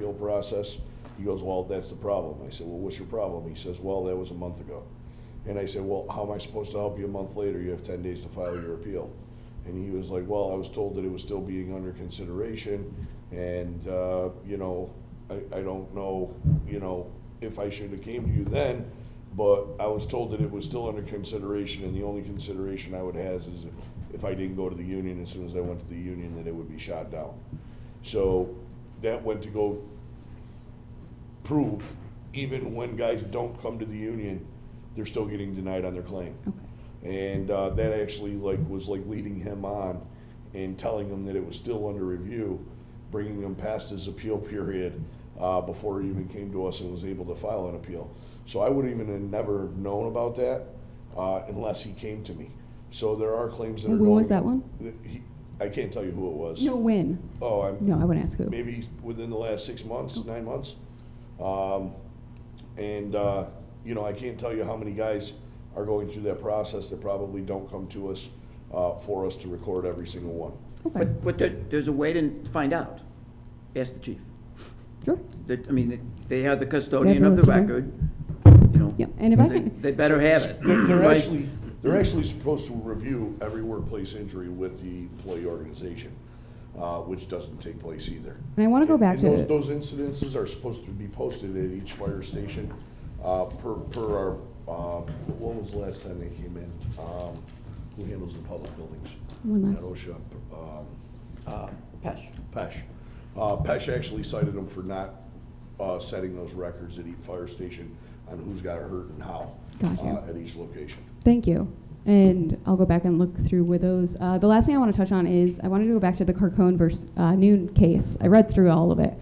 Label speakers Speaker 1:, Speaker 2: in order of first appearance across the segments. Speaker 1: appeal process. He goes, well, that's the problem. I said, well, what's your problem? He says, well, that was a month ago. And I said, well, how am I supposed to help you a month later? You have ten days to file your appeal. And he was like, well, I was told that it was still being under consideration, and, uh, you know, I, I don't know, you know, if I should have came to you then, but I was told that it was still under consideration, and the only consideration I would have is if I didn't go to the union, as soon as I went to the union, that it would be shot down. So, that went to go prove, even when guys don't come to the union, they're still getting denied on their claim. And uh, that actually like was like leading him on and telling him that it was still under review, bringing him past his appeal period uh, before he even came to us and was able to file an appeal. So I would even have never known about that uh, unless he came to me. So there are claims that are
Speaker 2: When
Speaker 1: going.
Speaker 2: was that one?
Speaker 1: he- I can't tell you who it was.
Speaker 2: No, when?
Speaker 1: Oh, I'm,
Speaker 2: No, I wouldn't ask who.
Speaker 1: maybe within the last six months, nine months. Um, and, uh, you know, I can't tell you how many guys are going through that process that probably don't come to us, uh, for us to record every single one.
Speaker 2: Okay,
Speaker 3: But, but there, there's a way to find out. Ask the chief.
Speaker 2: sure.
Speaker 3: That, I mean, they have the custodian
Speaker 2: That's
Speaker 3: of the
Speaker 2: what it's for.
Speaker 3: record, you know.
Speaker 2: Yeah, and if I
Speaker 3: they-
Speaker 2: can-
Speaker 3: They better have it.
Speaker 1: They're they're
Speaker 3: right?
Speaker 1: actually, they're actually supposed to review every workplace injury with the employee organization, uh, which doesn't take place either.
Speaker 2: And I want to go back
Speaker 1: And
Speaker 2: to,
Speaker 1: those, those incidences are supposed to be posted at each fire station, uh, per, per our, uh, what was the last time they came in? Um, who handles the public buildings?
Speaker 2: One last-
Speaker 1: Not OSHA, um,
Speaker 3: Uh, Pesh.
Speaker 1: Pesh. Uh, Pesh actually cited them for not, uh, setting those records at each fire station on who's got hurt and how.
Speaker 2: Gotcha.
Speaker 1: uh, At each location.
Speaker 2: thank you. And I'll go back and look through with those. Uh, the last thing I want to touch on is I wanted to go back to the Carcone versus uh, Noon case. I read through all of it.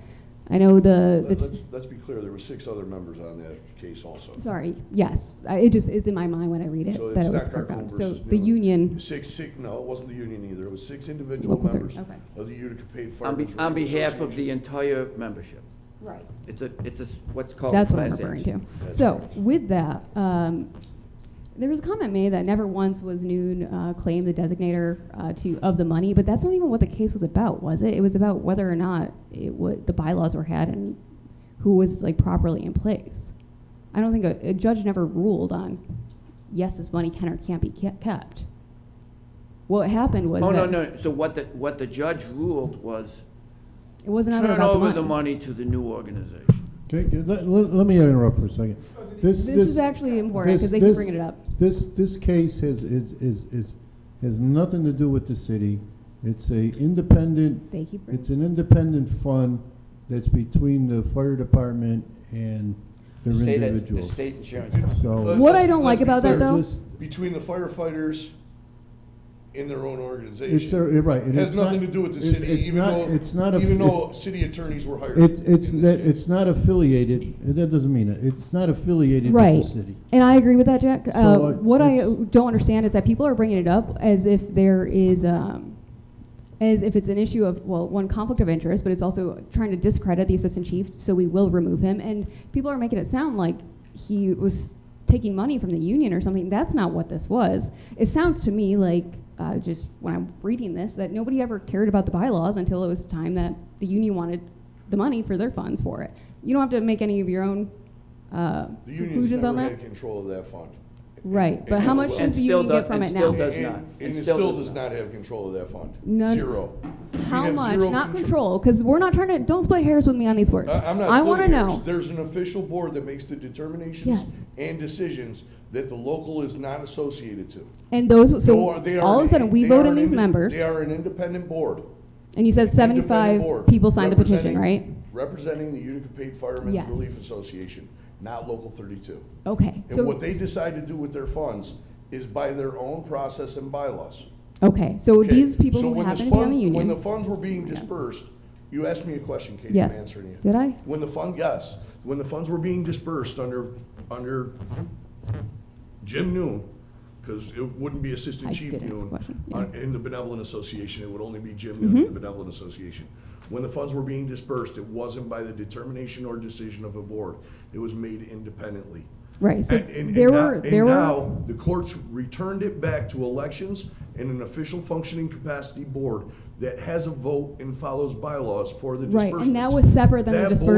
Speaker 2: I know the, the
Speaker 1: Let- Let's, let's be clear, there were six other members on that case also.
Speaker 2: sorry, yes, I, it just is in my mind when I read it
Speaker 1: So
Speaker 2: that
Speaker 1: it's
Speaker 2: it was
Speaker 1: not Carcone
Speaker 2: Carcone. So
Speaker 1: versus
Speaker 2: the
Speaker 1: Newman.
Speaker 2: union,
Speaker 1: Six, six, no, it wasn't the union either, it was six individual
Speaker 2: Local
Speaker 1: members
Speaker 2: thirty, okay.
Speaker 1: of the Utica Paid
Speaker 3: On
Speaker 1: Firemen's
Speaker 3: be, on
Speaker 1: Relief
Speaker 3: behalf of the
Speaker 1: Association.
Speaker 3: entire membership.
Speaker 2: right?
Speaker 3: It's a, it's a, s- what's called a
Speaker 2: That's what I'm
Speaker 3: class
Speaker 2: referring to.
Speaker 3: action.
Speaker 1: That's
Speaker 2: So
Speaker 1: correct.
Speaker 2: with that, um, there was a comment made that never once was Noon uh, claimed the designator uh, to of the money, but that's not even what the case was about, was it? It was about whether or not it would the bylaws were had and who was like properly in place. I don't think a, a judge never ruled on yes, this money can or can't be ke- kept. What happened was
Speaker 3: Oh, no,
Speaker 2: that
Speaker 3: no, so what the, what the judge ruled was
Speaker 2: it wasn't ever
Speaker 3: turn
Speaker 2: about
Speaker 3: over the money to the new organization.
Speaker 4: Okay, good. let, let, let me interrupt for a second. This,
Speaker 2: This is actually important,
Speaker 4: this-
Speaker 2: 'cause they keep
Speaker 4: this-
Speaker 2: bringing it up.
Speaker 4: This, this case has, is, is, is, has nothing to do with the city. It's a independent,
Speaker 2: They keep bringing-
Speaker 4: it's an independent fund that's between the fire department and
Speaker 3: The
Speaker 4: their
Speaker 3: state- uh,
Speaker 4: individuals.
Speaker 3: The state insurance.
Speaker 4: So.
Speaker 2: What I don't
Speaker 1: Let's
Speaker 2: like
Speaker 1: be
Speaker 2: about
Speaker 1: clear,
Speaker 2: that though,
Speaker 4: Just-
Speaker 1: Between the firefighters in their own organization.
Speaker 4: It's, their- you're right.
Speaker 1: It
Speaker 4: and
Speaker 1: has
Speaker 4: it's not-
Speaker 1: nothing to do with the
Speaker 4: it's-
Speaker 1: city,
Speaker 4: it's
Speaker 1: even
Speaker 4: not-
Speaker 1: though,
Speaker 4: It's not, a-
Speaker 1: even though
Speaker 4: it's-
Speaker 1: city attorneys were hired.
Speaker 4: It, it's,
Speaker 1: in this
Speaker 4: that-
Speaker 1: case.
Speaker 4: it's not affiliated, that doesn't mean it, it's not affiliated
Speaker 2: Right.
Speaker 4: with the city.
Speaker 2: And I agree with that, Jack. uh,
Speaker 4: So, uh,
Speaker 2: what I
Speaker 4: it's-
Speaker 2: don't understand is that people are bringing it up as if there is, um, as if it's an issue of, well, one, conflict of interest, but it's also trying to discredit the assistant chief, so we will remove him. And people are making it sound like he was taking money from the union or something. That's not what this was. It sounds to me like, uh, just when I'm reading this, that nobody ever cared about the bylaws until it was time that the union wanted the money for their funds for it. You don't have to make any of your own uh,
Speaker 1: The union's
Speaker 2: conclusions on
Speaker 1: never
Speaker 2: that.
Speaker 1: had control of that fund.
Speaker 2: Right, but how
Speaker 1: And
Speaker 2: much
Speaker 1: it's-
Speaker 2: does the
Speaker 3: still
Speaker 2: union get
Speaker 3: does-
Speaker 2: from
Speaker 3: and
Speaker 2: it
Speaker 3: still
Speaker 2: now?
Speaker 3: does
Speaker 1: And-
Speaker 3: not.
Speaker 1: And
Speaker 3: It
Speaker 1: it
Speaker 3: still
Speaker 1: still
Speaker 3: does
Speaker 1: does
Speaker 3: not.
Speaker 1: not have control of that fund.
Speaker 2: None-
Speaker 1: Zero. We
Speaker 2: How
Speaker 1: have
Speaker 2: much?
Speaker 1: zero
Speaker 2: Not control, because we're not trying to, don't split hairs with me on these words.
Speaker 1: I- I'm not.
Speaker 2: I want to
Speaker 1: splitting hairs.
Speaker 2: know.
Speaker 1: There's an official board that makes the determinations
Speaker 2: Yes.
Speaker 1: and decisions that the local is not associated to.
Speaker 2: And those, so
Speaker 1: They are- they are
Speaker 2: all of a
Speaker 1: an-
Speaker 2: sudden, we
Speaker 1: they
Speaker 2: vote
Speaker 1: are
Speaker 2: in
Speaker 1: an
Speaker 2: these
Speaker 1: inde-
Speaker 2: members,
Speaker 1: They are an independent board.
Speaker 2: and you said
Speaker 1: Independent
Speaker 2: 75
Speaker 1: board,
Speaker 2: people signed the petition,
Speaker 1: representing-
Speaker 2: right?
Speaker 1: Representing the Utica Paid Firemen's
Speaker 2: Yes.
Speaker 1: Relief Association, not Local thirty-two.
Speaker 2: Okay,
Speaker 1: And
Speaker 2: so,
Speaker 1: what they decide to do with their funds is by their own process and bylaws.
Speaker 2: okay, so
Speaker 1: Okay,
Speaker 2: these people
Speaker 1: so
Speaker 2: who
Speaker 1: when this
Speaker 2: happen to be on
Speaker 1: fund-
Speaker 2: the
Speaker 1: When the
Speaker 2: union,
Speaker 1: funds were being dispersed, you asked me a question, Katie, I'm
Speaker 2: Yes.
Speaker 1: answering you.
Speaker 2: Did I?
Speaker 1: When the fund, yes, when the funds were being dispersed under, under Jim Noon, because it wouldn't be Assistant
Speaker 2: I
Speaker 1: Chief
Speaker 2: did ask a
Speaker 1: Noon.
Speaker 2: question,
Speaker 1: uh,
Speaker 2: yeah. Mm-hmm.
Speaker 1: In the Benevolent Association, it would only be Jim Noon in the Benevolent Association. When the funds were being dispersed, it wasn't by the determination or decision of a board. It was made independently.
Speaker 2: right, so
Speaker 1: And- and-
Speaker 2: there
Speaker 1: and now-
Speaker 2: were, there
Speaker 1: And
Speaker 2: were,
Speaker 1: now, the courts returned it back to elections and an official functioning capacity board that has a vote and follows bylaws for the
Speaker 2: right,
Speaker 1: disbursements.
Speaker 2: and that was separate than the
Speaker 1: That board
Speaker 2: dispersal.